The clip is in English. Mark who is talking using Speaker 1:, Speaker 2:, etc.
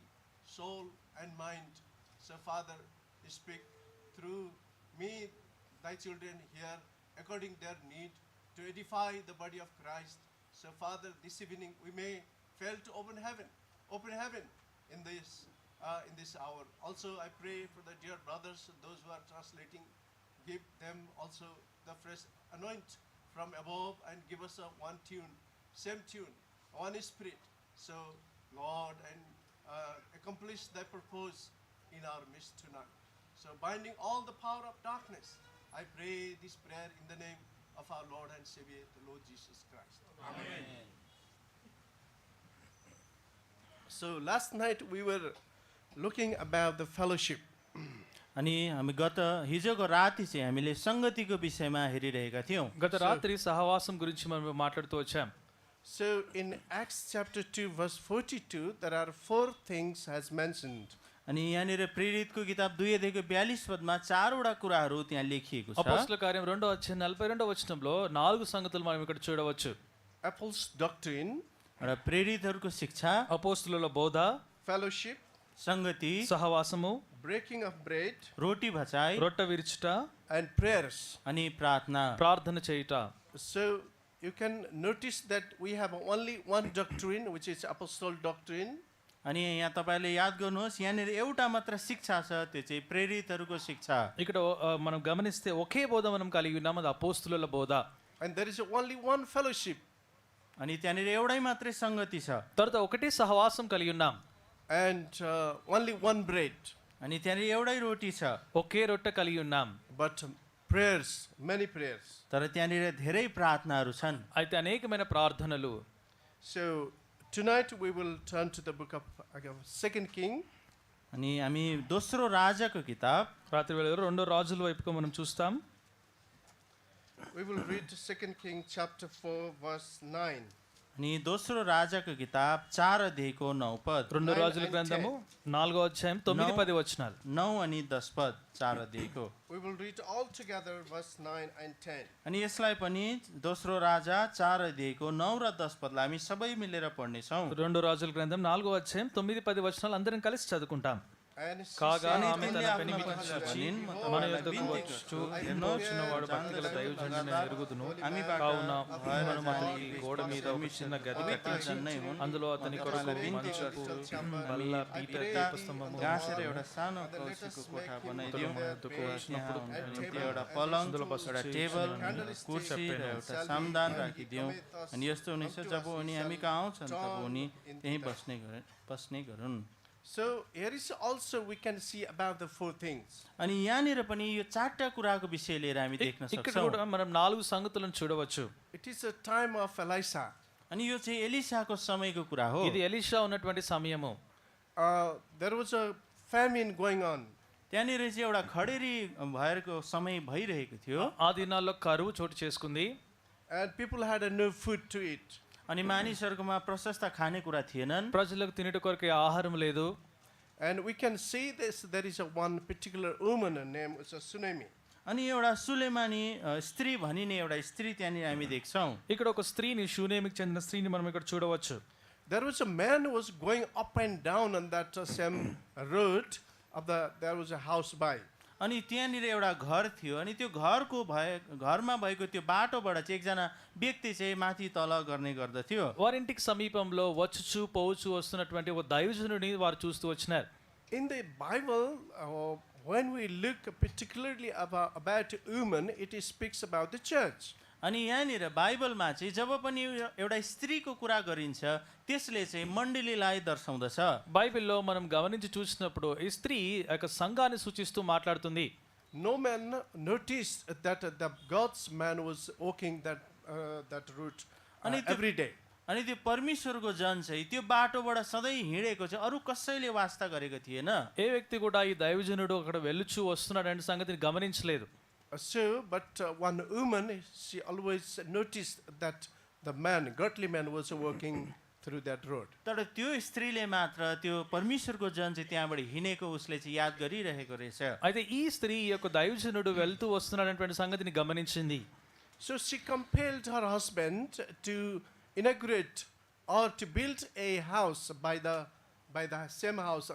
Speaker 1: soul, and mind. So, Father, speak through me, thy children here, according their need, to edify the body of Christ. So, Father, this evening we may fail to open heaven, open heaven in this uh, in this hour. Also, I pray for the dear brothers, those who are translating, give them also the fresh anoint from above and give us a one tune, same tune, one spirit. So, Lord, and uh, accomplish Thy purpose in our midst tonight. So, binding all the power of darkness, I pray this prayer in the name of our Lord and Savior, the Lord Jesus Christ. So last night we were looking about the fellowship.
Speaker 2: अनि हामी गत हिजोको राति चाहिँ हामीले सङ्गतिको विषयमा हेरिरहेका थियौँ
Speaker 3: గత రాత్రి సహవాసం గురించి మనం మాట్లాడుతూ వచ్చాం
Speaker 1: So in Acts chapter 2 verse 42 there are four things has mentioned.
Speaker 2: अनि यहाँनिर प्रेरितको किताब दुई अध्यायको बयालिस पदमा चारवटा कुराहरू त्यहाँ लेखिएको छ
Speaker 3: అపోస్తుల కార్యం రెండో అధ్యాయం నలభై రెండో వచనంలో నాలుగు సంగతులు మనం ఇక్కడ చూడవచ్చు
Speaker 1: Apples doctrine,
Speaker 2: एउटा प्रेरितहरूको शिक्षा
Speaker 3: అపోస్తుల బోధ
Speaker 1: fellowship,
Speaker 2: सङ्गति
Speaker 3: సహవాసము
Speaker 1: breaking of bread
Speaker 2: रोटी भचाइ
Speaker 3: రొట్టె విరుచుట
Speaker 1: and prayers.
Speaker 2: अनि प्रार्थना
Speaker 3: ప్రార్థన చేయుట
Speaker 1: So you can notice that we have only one doctrine which is apostle doctrine
Speaker 2: अनि यहाँ तपाईँले याद गर्नुहोस् यहाँनिर एउटा मात्र शिक्षा छ त्यो चाहिँ प्रेरितहरूको शिक्षा
Speaker 3: ఇక్కడ ఆ, మనం గమనిస్తే ఒకే బోధ మనం కలిగి ఉన్నాం అది అపోస్తుల బోధ
Speaker 1: and there is only one fellowship
Speaker 2: अनि त्यहाँनिर एउटै मात्रै सङ्गति छ
Speaker 3: తర్వాత ఒకటే సహవాసం కలిగి ఉన్నాం
Speaker 1: and uh, only one bread
Speaker 2: अनि त्यहाँनिर एउटै रोटी छ
Speaker 3: ఒకే రొట్టె కలిగి ఉన్నాం
Speaker 1: but prayers, many prayers.
Speaker 2: तर त्यहाँनिर धेरै प्रार्थनाहरू छन्
Speaker 3: అయితే అనేకమైన ప్రార్థనలు
Speaker 1: So tonight we will turn to the book of of Second King,
Speaker 2: अनि हामी दोस्रो राजाको किताब
Speaker 3: రాత్రి వేళ రెండో రాజుల వైపుగా మనం చూస్తాం
Speaker 1: we will read Second King chapter four, verse nine.
Speaker 2: अनि दोस्रो राजाको किताब चार अध्यायको नौ पद
Speaker 3: రెండు
Speaker 1: Nine
Speaker 3: రాజుల
Speaker 1: and
Speaker 3: గ్రంథము నాలుగో అధ్యాయం తొమ్మిది
Speaker 2: No.
Speaker 3: పది వచనాలు
Speaker 2: नौ अनि दस पद चार अध्यायको
Speaker 1: We will read all together verse nine and ten.
Speaker 2: अनि यसलाई पनि दोस्रो राजा चार अध्यायको नौ र दस पदलाई हामी सबै मिलेर पढ्नेछौँ
Speaker 3: రెండు రాజుల గ్రంథం నాలుగో అధ్యాయం తొమ్మిది పది వచనాలు అందరం కలిసి చదువుకుంటాం
Speaker 1: And she
Speaker 3: కాగా
Speaker 1: said
Speaker 2: अनि
Speaker 3: ఆమె
Speaker 1: unto
Speaker 2: तिनले
Speaker 3: తన
Speaker 1: the
Speaker 2: आफ्ना
Speaker 1: people,
Speaker 3: పెనిమిటి
Speaker 2: पश्चात
Speaker 3: చూచి,
Speaker 2: छिन्, म
Speaker 3: మన
Speaker 2: तपाईँलाई
Speaker 3: యొద్దకు
Speaker 2: बिन्ती गर्छु,
Speaker 3: వచ్చు ఎన్నో
Speaker 2: हेर्नुहोस्,
Speaker 3: చిన్నవాడు భక్తుల
Speaker 2: जान्दछ,
Speaker 3: దైవజనుని
Speaker 2: लगातार
Speaker 3: ఎరుగుదును
Speaker 2: हामीबाट
Speaker 3: కావున
Speaker 2: भएर
Speaker 3: మనము అతనికి
Speaker 2: जाने
Speaker 3: గోడ మీద ఒక చిన్న గది
Speaker 2: अभी
Speaker 3: కట్టించి
Speaker 2: नै हुन्।
Speaker 3: అందులో అతని
Speaker 2: म
Speaker 3: కొరకు
Speaker 2: तपाईँलाई बिन्ती
Speaker 3: మంచుకు
Speaker 2: गर्छु,
Speaker 3: బల్ల
Speaker 2: अनि
Speaker 3: పీట
Speaker 2: पिता
Speaker 3: దీపస్తంభము
Speaker 2: गाँसेर एउटा सानो
Speaker 1: And let us
Speaker 2: कौसीको
Speaker 1: make
Speaker 2: कोठा
Speaker 1: him
Speaker 2: बनाइदियो
Speaker 1: उत्तम
Speaker 2: त्यहाँ
Speaker 1: दुःख
Speaker 3: उष्णपुर
Speaker 2: उनको
Speaker 1: and
Speaker 2: निम्ति
Speaker 1: table
Speaker 2: एउटा
Speaker 1: and
Speaker 2: पलङ
Speaker 1: सुन्दर
Speaker 2: एउटा
Speaker 3: बसेर
Speaker 2: टेबल
Speaker 3: चिया
Speaker 2: अनि
Speaker 1: खाने
Speaker 2: कुर्सी र
Speaker 3: चपेन।
Speaker 2: एउटा
Speaker 1: Shall we
Speaker 2: सामदान
Speaker 1: and he
Speaker 2: राखिदियौँ
Speaker 1: cometh us
Speaker 2: अनि यस्तो हुनेछ
Speaker 1: unto
Speaker 2: जब
Speaker 1: us, he
Speaker 2: उनी
Speaker 1: shall
Speaker 2: हामी कहाँ आउँछन् तब
Speaker 1: turn
Speaker 2: उनी
Speaker 1: into
Speaker 2: त्यहीँ
Speaker 1: us.
Speaker 2: बस्ने गरे बस्ने गरून्
Speaker 1: So here is also we can see about the four things.
Speaker 2: अनि यहाँनिर पनि यो चारवटा कुराको विषय लिएर हामी देख्न
Speaker 3: ఇక్కడ
Speaker 2: सक्छौँ
Speaker 3: కూడా మనం నాలుగు సంగతులను చూడవచ్చు
Speaker 1: It is a time of Elisha.
Speaker 2: अनि यो चाहिँ एलिसाको समयको कुरा हो
Speaker 3: ఇది ఎలీషా ఉన్నటువంటి సమయము
Speaker 1: Uh, there was a famine going on.
Speaker 2: त्यहाँनिर चाहिँ एउटा खडेरी भएको समय भइरहेको थियो
Speaker 3: ఆ దినాల్లో కరువు చోటు చేసుకుంది
Speaker 1: and people had uh, no food to eat.
Speaker 2: अनि मानिसहरूकोमा प्रशस्त खानेकुरा थिएनन्
Speaker 3: ప్రజలకు తినట కొరకు ఆహారం లేదు
Speaker 1: And we can see this. There is a one particular woman her name is a Tsunami.
Speaker 2: अनि एउटा सुलेमानी अ, स्त्री भनिने एउटा स्त्री त्यहाँनिर हामी देख्छौँ
Speaker 3: ఇక్కడ ఒక స్త్రీని షూనేమికి చెందిన స్త్రీని మనం ఇక్కడ చూడవచ్చు
Speaker 1: There was a man who was going up and down on that uh, same road. Of the there was a house by,
Speaker 2: अनि त्यहाँनिर एउटा घर थियो अनि त्यो घरको भए घरमा भएको त्यो बाटोबाट चाहिँ एकजना व्यक्ति चाहिँ माथि तल गर्ने गर्दथ्यो
Speaker 3: వారింటికి సమీపంలో వచ్చుచు పోవచ్చు వస్తున్నటువంటి ఒక దైవజనుడిని వారు చూస్తూ వచ్చినారు
Speaker 1: In the Bible, uh, when we look particularly about, about women, it is speaks about the church.
Speaker 2: अनि यहाँनिर बाइबलमा चाहिँ जब पनि यो- एउटा स्त्रीको कुरा गरिन्छ त्यसले चाहिँ मण्डलीलाई दर्शाउँदछ
Speaker 3: బైబిల్లో మనం గమనించి చూసినప్పుడు ఈ స్త్రీ ఆ యొక్క సంఘాన్ని సూచిస్తూ మాట్లాడుతుంది
Speaker 1: No man noticed that uh, the God's man was walking that uh, that route uh,
Speaker 2: And it-
Speaker 1: every day.
Speaker 2: अनि त्यो परमेश्वरको जन चाहिँ त्यो बाटोबाट सधैँ हिँडेको चाहिँ अरू कसैले वास्ता गरेको थिएन
Speaker 3: ఏ వ్యక్తి కూడా ఈ దైవజనుడు అక్కడ వెళ్ళుచు వస్తున్నాడు అనే సంగతిని గమనించలేదు
Speaker 1: Uh, So, but uh, one woman, she always noticed that the man, godly man, was walking through that road.
Speaker 2: तर त्यो स्त्रीले मात्र त्यो परमेश्वरको जन चाहिँ त्यहाँबाट हिँडेको उसले चाहिँ याद गरिरहेको रहेछ
Speaker 3: అయితే ఈ స్త్రీ ఈ యొక్క దైవజనుడు వెళ్తూ వస్తున్నాడు అనేటువంటి సంగతిని గమనించింది
Speaker 1: So she compelled her husband to inaugurate or to build a house by the by the same house